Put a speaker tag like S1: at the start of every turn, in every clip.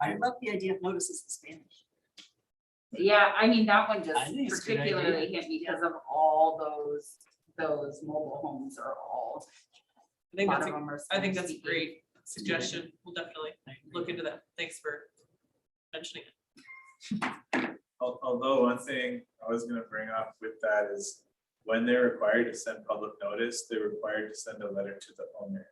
S1: I love the idea of notices in Spanish.
S2: Yeah, I mean, that one
S3: I think
S2: just
S3: it's a good idea.
S2: particularly hit me because of all those, those mobile homes are all.
S4: I think
S2: a lot of
S4: that's,
S2: E
S4: a-
S2: them are
S4: I think that's a
S2: Spanish-speaking.
S4: great suggestion. We'll definitely look into that. Thanks for mentioning it.
S5: Al- Although one thing I was gonna bring up with that is when they're required to send public notice, they're required to send a letter to the owner.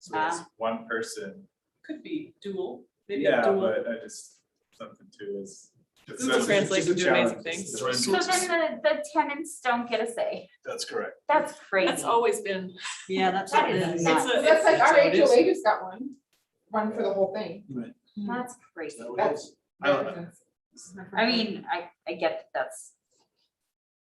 S5: So it's
S3: Ah.
S5: one person,
S4: Could be dual, maybe a
S5: yeah,
S4: dual.
S5: but I just, something too is. it's-
S4: Google
S5: it's
S4: Translate
S5: just a
S4: would do amazing
S5: challenge.
S4: things.
S5: It's just-
S2: So then the, the tenants don't get a say.
S5: That's correct.
S2: That's crazy.
S4: That's always been,
S1: Yeah, that's
S2: That
S1: what it
S2: is
S1: is.
S2: nuts.
S4: it's a,
S6: That's like
S4: it's-
S6: our
S4: it is.
S6: HOA just got one, one for the whole thing.
S4: Hmm.
S2: That's crazy.
S6: That's-
S5: I don't know.
S6: This is my
S2: I
S6: first time.
S2: mean, I, I get that that's.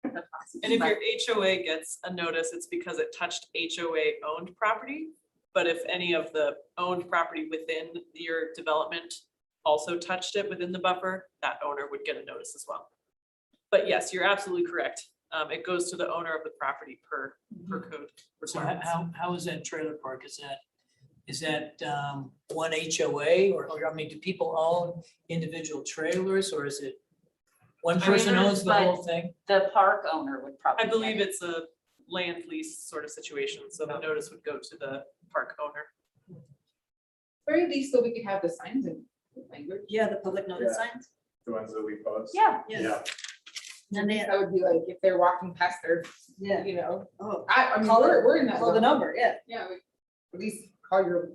S2: that's awesome,
S4: And if
S2: but-
S4: your HOA gets a notice, it's because it touched HOA owned property. But if any of the owned property within your development also touched it within the buffer, that owner would get a notice as well. But yes, you're absolutely correct. Um, it goes to the owner of the property per, per code.
S3: So how-
S4: requirements.
S3: how, how is that trailer park? Is that, is that um, one HOA or, or, I mean, do people own individual trailers or is it? One
S2: I mean,
S3: person
S2: there's
S3: owns the whole thing?
S2: The park owner would probably.
S4: I believe
S2: get
S4: it's a land lease sort of situation, so the notice would go to the park owner.
S6: Very least, so we could have the signs in language.
S1: Yeah, the public notice signs.
S5: The ones that we post.
S2: Yeah,
S1: Yeah. And then they,
S6: That would be like if they're walking past their,
S1: yeah,
S6: you know,
S1: oh,
S6: I, I mean,
S1: Call
S6: we're,
S1: it-
S6: we're in that.
S1: call the
S6: zone.
S1: number, yeah.
S6: Yeah, we- at least call your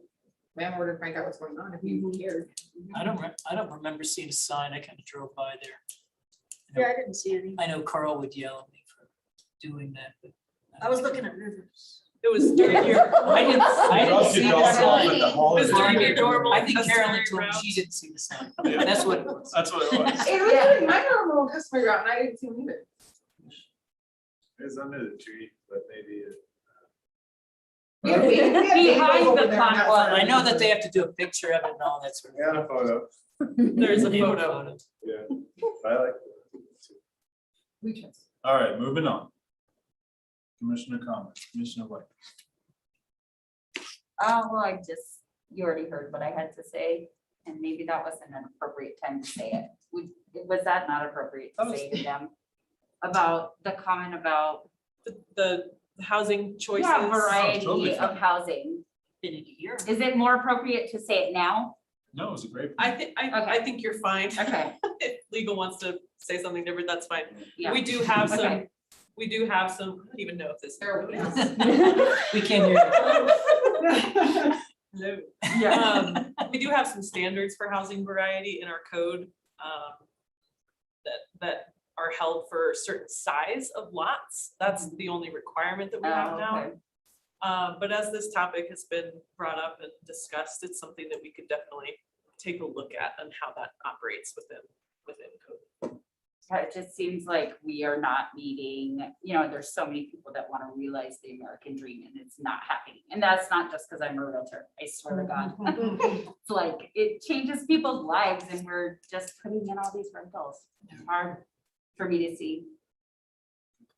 S6: landlord and find out what's going on if you
S1: Mm-hmm.
S6: care.
S3: I don't, re- I don't remember seeing a sign. I kind of drove by there.
S1: Yeah, I didn't see any.
S3: I know Carl would yell at me for doing that, but.
S1: I was looking at rivers.
S4: It was during your.
S3: I didn't, I didn't
S5: What else
S3: see
S5: you
S3: the
S5: don't want
S3: sign.
S5: with the holiday?
S4: Mr. Your normal-
S3: I think
S4: That's
S3: Carolyn
S4: very
S3: told me
S4: route.
S3: she didn't see the sign.
S5: Yeah. Uh,
S3: That's what it was.
S5: That's what it was.
S6: It was in my normal customer route and I didn't see them either.
S5: It was under the tree, but maybe it.
S6: We have- we have tables
S2: Behind the
S6: over there on that
S2: platform.
S6: side.
S3: I know that they have to do a picture of it and all that sort of.
S5: We had a photo,
S4: There's a photo.
S5: yeah, I like. it.
S6: We trust.
S5: All right, moving on. Commissioner comments, Commissioner White.
S2: oh, well, I just, you already heard what I had to say, and maybe that wasn't an appropriate time to say it. Would- Was that not appropriate to say to them? About the comment about
S4: the, the housing choices.
S2: Yeah,
S5: totally
S2: variety
S5: fine.
S2: of housing.
S1: Been in a year.
S2: Is it more appropriate to say it now?
S5: No, it was a great.
S4: I think, I, I think you're fine.
S2: Okay,
S4: If legal wants to say something different, that's fine.
S2: yeah.
S4: We do have some,
S2: Okay.
S4: we do have some, I don't even know if this.
S6: There we go.
S3: We can hear you.
S4: No.
S2: Yeah.
S4: Um, we do have some standards for housing variety in our code, um, that, that are held for certain size of lots. That's the only requirement that we have now.
S2: Mm-hmm. Oh, okay.
S4: Uh, but as this topic has been brought up and discussed, it's something that we could definitely take a look at and how that operates within, within code.
S2: Yeah, It just seems like we are not meeting, you know, there's so many people that want to realize the American dream and it's not happening. And that's not just because I'm a realtor, I swear to God.
S1: Mm-hmm.
S2: It's like, it changes people's lives and we're just putting in all these rentals. It's Hard for me to see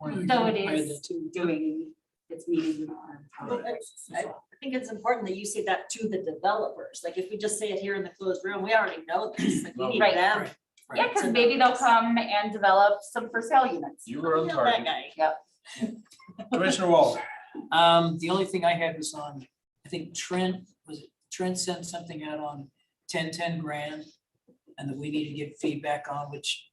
S2: Though it
S3: I had that
S2: is doing, it's meeting our.
S1: Well, I I think it's important that you say that to the developers. Like if we just say it here in the closed room, we already know this. Like we need
S2: Right.
S1: them.
S2: Yeah, because maybe they'll come and develop some for sale units.
S5: You were on
S1: Yeah, that
S5: target.
S1: guy.
S5: Commissioner Walter.
S3: Um, the only thing I had was on, I think Trent, was it Trent sent something out on ten, ten grand? And that we need to get feedback on, which,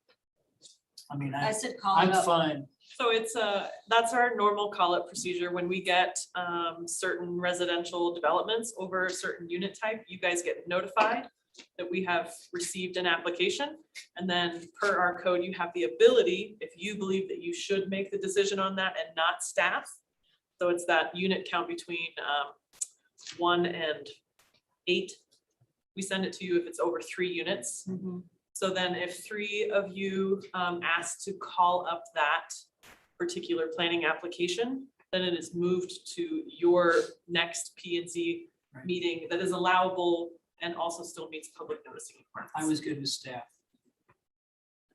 S3: I mean,
S1: I
S3: I,
S1: said call
S3: I'm
S1: it up.
S3: fine.
S4: So it's a, that's our normal call-up procedure. When we get um, certain residential developments over a certain unit type, you guys get notified that we have received an application. And then per our code, you have the ability, if you believe that you should make the decision on that and not staff. So it's that unit count between um, one and eight. We send it to you if it's over three units. So then if three of you um ask to call up that particular planning application, then it is moved to your next P and Z
S3: Right.
S4: meeting that is allowable and also still meets public noticing
S3: I
S4: requirements.
S3: was good with staff.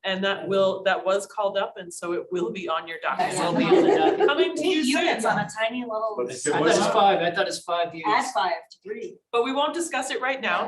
S4: And that will, that was called up and so it will be on your document.
S3: It will be on the document.
S4: Coming to you soon,
S1: Units on a tiny little.
S5: But if
S3: I
S5: it
S3: thought it
S5: was-
S3: was five, I thought it was five years.
S1: Add five to three.
S4: but we won't discuss it right now